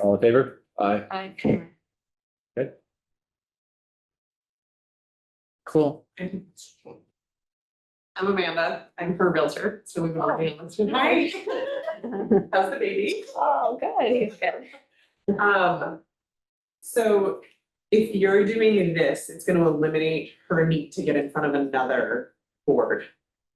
All in favor? Aye. I, Cool. I'm Amanda. I'm her realtor, so we've already listed. Hi. How's the baby? oh, good, he's good. Um, so if you're doing this, it's gonna eliminate her need to get in front of another board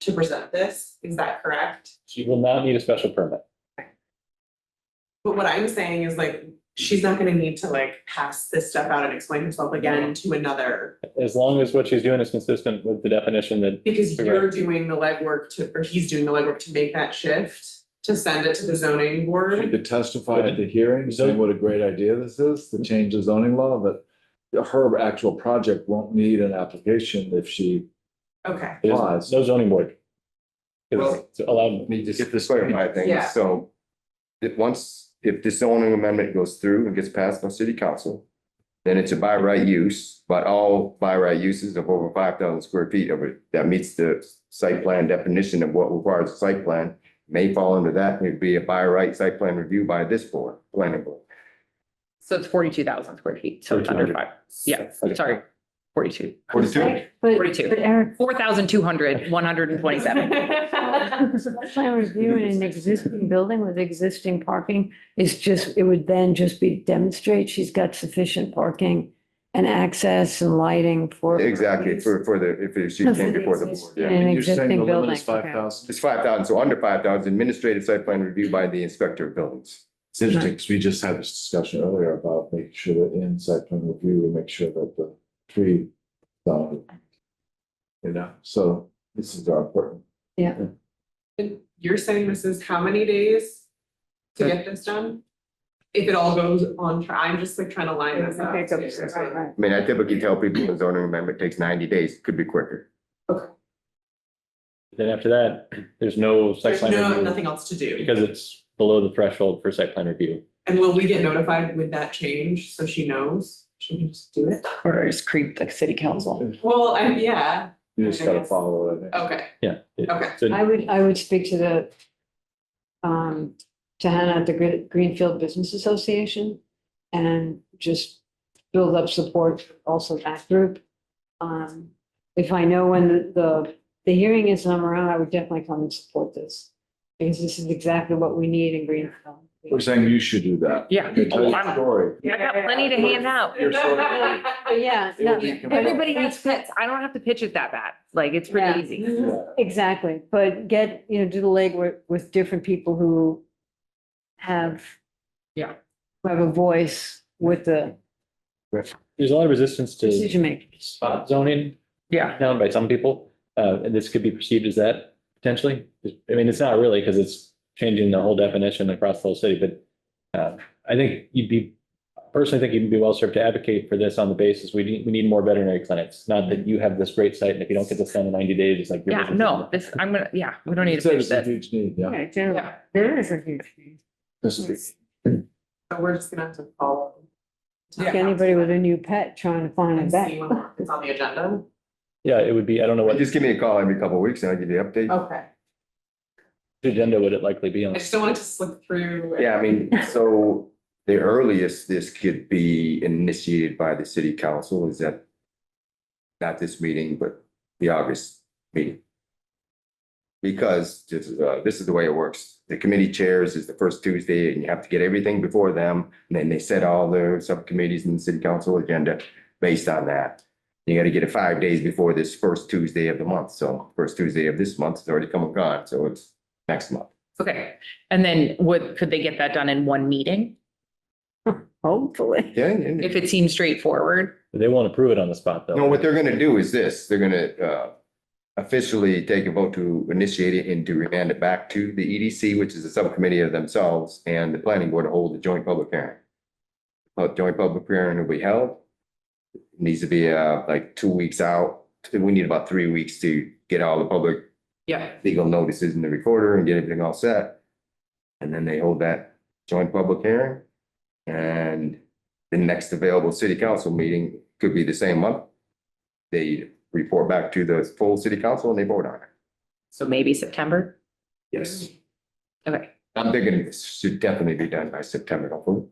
to present this. Is that correct? She will not need a special permit. But what I'm saying is like, she's not gonna need to like pass this stuff out and explain herself again to another. As long as what she's doing is consistent with the definition that Because you're doing the legwork to, or he's doing the legwork to make that shift, to send it to the zoning She board. could testify at the hearing, saying what a great idea this is, to change the zoning law, but her actual project won't need an application if she Okay, there's applies. no zoning board. Because Well- it's allowed, Let me just Get this- clarify Yeah. things, so. That once, if this zoning amendment goes through and gets passed by city council. Then it's a by right use, but all by right uses of over five thousand square feet of it, that meets the site plan definition of what requires a site plan. May fall under that, and it'd be a by right site plan review by this board, planning board. So it's forty-two thousand square feet, so it's under five. Yeah, Okay. sorry, forty-two. Forty-two, But, 42. but Eric, Four thousand two hundred, one hundred and twenty-seven. site plan review in an existing building with existing parking is just, it would then just be demonstrate she's got sufficient parking and access and lighting for. exactly, for, for the, if she No, for came the before the board, existing- yeah. An And you're saying existing the limit is building, okay. Five thousand. It's five thousand, so under five thousand, administrative site plan review by the inspector of buildings. It's interesting, because we just had this discussion earlier about making sure that in site plan review, we make sure that the tree. um, You know, so this is our important. And you're saying this is how many days to get this done? If it all goes on, tra- I'm just like trying to line this up. I mean, I typically tell people the zoning amendment takes ninety days, could be quicker. then after that, there's no site There's plan no, review nothing else to do. because it's below the threshold for site plan review. And will we get notified with that change so she knows? She can just do it? Or just creep the city council. Well, I, yeah, You just gotta follow it, I think. okay, Yeah. it- okay. so I would, I would speak to the, um, to Hannah at the Gre- Greenfield Business Association and just build up support also that group. Um, if I know when the- the, the hearing is, and I'm around, I would definitely come and support this. Because this is exactly what we need in Greenfield. We're saying you should do that. Yeah. You tell your I'm- story. I got plenty to hand out. You're sort of- But Oh, yeah, no, Everybody has pets. I don't have to pitch it that bad. Like, it's Yeah. pretty easy. Exactly, but get, you know, do the legwork with different people who have. Yeah. who Have a voice with the There's a lot of resistance to decision makers. spot zoning Yeah. down by some people, uh, and this could be perceived as that potentially. I mean, it's not really because it's changing the whole definition across the whole city, but uh, I think you'd be, personally think you'd be well served to advocate for this on the basis, we need, we need more veterinary clinics. Not that you have this great site and if you don't get this done in ninety days, it's like. your Yeah, business no, isn't- this, I'm gonna, yeah, we don't need to It's a- pitch it's a this. Huge need, yeah. Yeah. There is a huge need. This is- So we're just gonna have to follow. Like anybody with a new pet trying to find a And see vet. when it's on the agenda. Yeah, it would be, I don't know what Just give me a call every couple of weeks and I'll give you an update. Okay, agenda would it likely be I on. just don't want it to slip through. Yeah, I mean, so the earliest this could be initiated by the city council is at not this meeting, but the August meeting. Because this is, uh, this is the way it works. The committee chairs is the first Tuesday and you have to get everything before them. And then they set all their subcommittees and city council agenda based on that. You gotta get it five days before this first Tuesday of the month. So first Tuesday of this month is already come and gone, so it's next month. Okay. And then would, could they get that done in one meeting? Hopefully. Yeah. and- If it seems straightforward? They won't approve it on the spot though. No, what they're gonna do is this, they're gonna uh officially take a vote to initiate it and to remand it back to the EDC, which is a subcommittee of themselves, and the planning board to hold the joint public hearing. A joint public hearing will be held. Needs to be uh like two weeks out, we need about three weeks to get all the public Yeah. legal notices in the recorder and get everything all set. And then they hold that joint public hearing. And the next available city council meeting could be the same month. They report back to the full city council and they vote on it. So maybe September? Yes. Okay. I'm thinking this should definitely be done by September, hopefully.